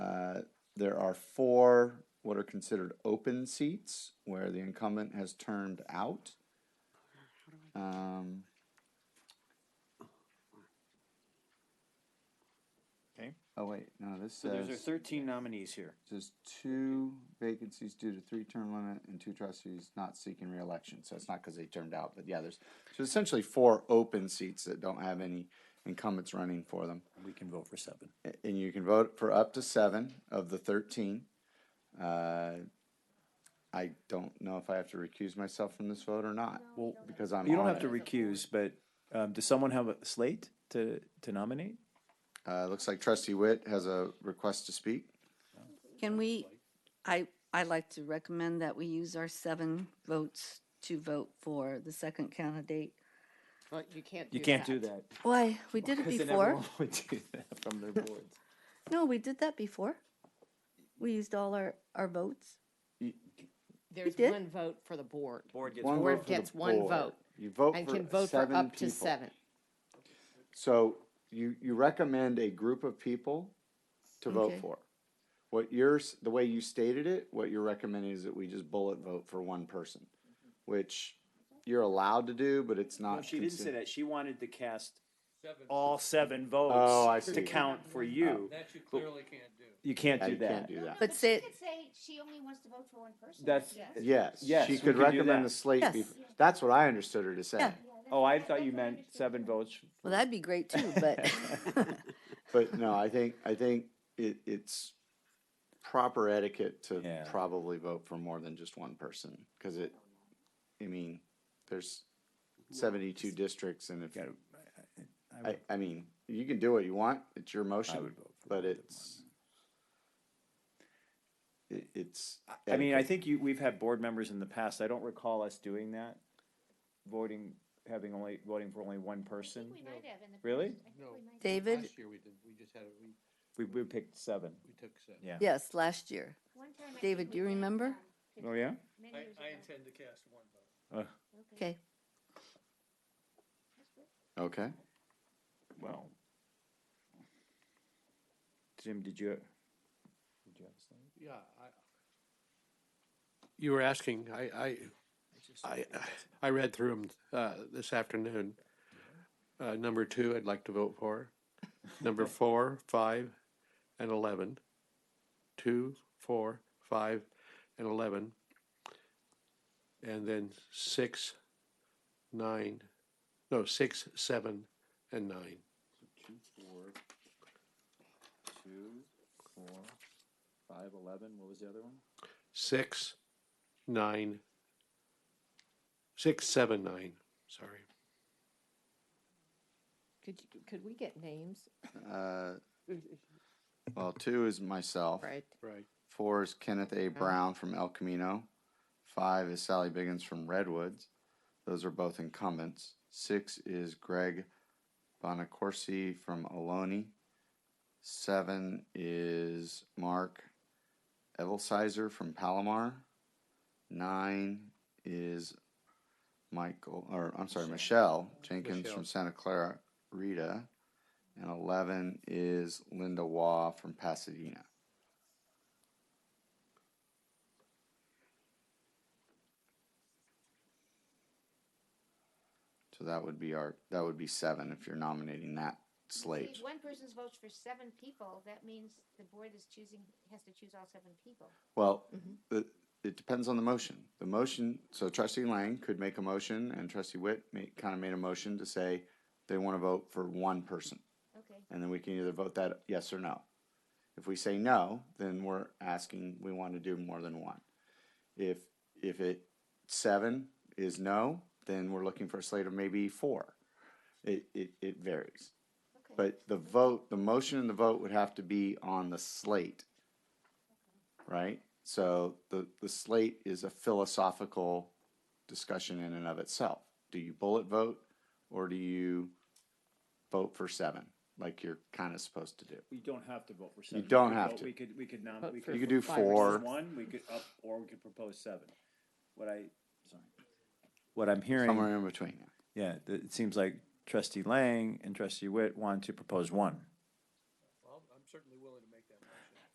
Uh, There are four what are considered open seats where the incumbent has turned out. Um, Okay. oh wait, no, this So there's our says thirteen nominees here. there's two vacancies due to three-term limit and two trustees not seeking reelection. So it's not because they turned out, but yeah, there's so essentially four open seats that don't have any incumbents running for them. We can vote for seven. A- And you can vote for up to seven of the thirteen. Uh, I don't know if I have to recuse myself from this vote or not, Well, because I'm you don't on have to it. recuse, but um, does someone have a slate to, to nominate? Uh, looks like trustee Witt has a request to speak. Can we, I, I'd like to recommend that we use our seven votes to vote for the second candidate. Well, you can't do You can't do that. Why, we did it Because then before. everyone would do that from their boards. No, we did that before. We used all our, our votes. There's did? one vote for the board. Board gets One Board vote for the gets one board. vote You vote And for can vote for seven up to people. seven. So you, you recommend a group of people to vote Okay. for. What yours, the way you stated it, what you're recommending is that we just bullet vote for one person, which you're allowed to do, but it's not. No, she didn't say considered- that. She wanted to cast all seven Oh, I votes see. Oh. to count for you. That you clearly can't do. You can't Yeah, do you can't that. do that. But say- She could say she only wants to vote for one person. That's- Yeah. Yes, Yes, she we could could do recommend that. the slate. Yes. be- That's what I understood her to say. Yeah. Oh, I thought you meant seven votes. Well, that'd be great too, but But no, I think, I think it, it's proper etiquette to Yeah. probably vote for more than just one person, cause it, I mean, there's seventy-two districts and if, Gotta- I I, would- I mean, you can do what you want, it's your I motion, would vote for but more than it's, it, it's. one. I mean, I etiquette. think you, we've had board members in the past. I don't recall us doing that. Voting, having only, voting for only one I person. think we might have in the Really? past. I think No. we might have. David, Last year we did, we just had, it- we, We, we picked seven. we took seven. Yeah. yes, last year. One time I think David, we do you did, remember? um, Oh, yeah? many I, years I ago. intend to cast one vote. Okay, Okay, Well. Jim, did you? did you have a slide? Yeah, I. You were asking, I, I, I, I read through them, uh, this afternoon. Uh, number two, I'd like to vote for. Number four, five, and eleven. Two, four, five, and eleven. And then six, nine, no, six, seven, and nine. Two, four, two, four, five, eleven, what was the other one? Six, nine, six, seven, nine, sorry. Could, you- could we get names? uh, well, two is myself. Right. Right. Four is Kenneth A. Brown from El Camino. Five is Sally Biggins from Redwoods. Those are both incumbents. Six is Greg Bonacorsi from Ohlone. Seven is Mark Evelsizer from Palomar. Nine is Michael, or I'm sorry, Michelle Jenkins Michelle. from Santa Clara Rita. And 11 is Linda Waugh from Pasadena. So that would be our, that would be seven if you're nominating that slate. If one person votes for seven people, that means the board is choosing, has to choose all seven people. Well, the, it depends on the motion. The motion, so trustee Lang could make a motion and trustee Witt made, kind of made a motion to say they want to vote for one person. Okay. And then we can either vote that yes or no. If we say no, then we're asking, we want to do more than one. If, if it, seven is no, then we're looking for a slate of maybe four. It, it, it varies. Okay. But the vote, the motion and the vote would have to be on the slate. Right? So the, the slate is a philosophical discussion in and of itself. Do you bullet vote or do you vote for seven, like you're kind of supposed to do? We don't have to vote for You seven. We don't could have vote- to. We could, we could nom, Vote we for could. You could do propose four. One, we could up, or we could propose seven. What I, sorry. What I'm hearing, Somewhere in between. yeah, th- it seems like trustee Lang and trustee Witt want to propose one.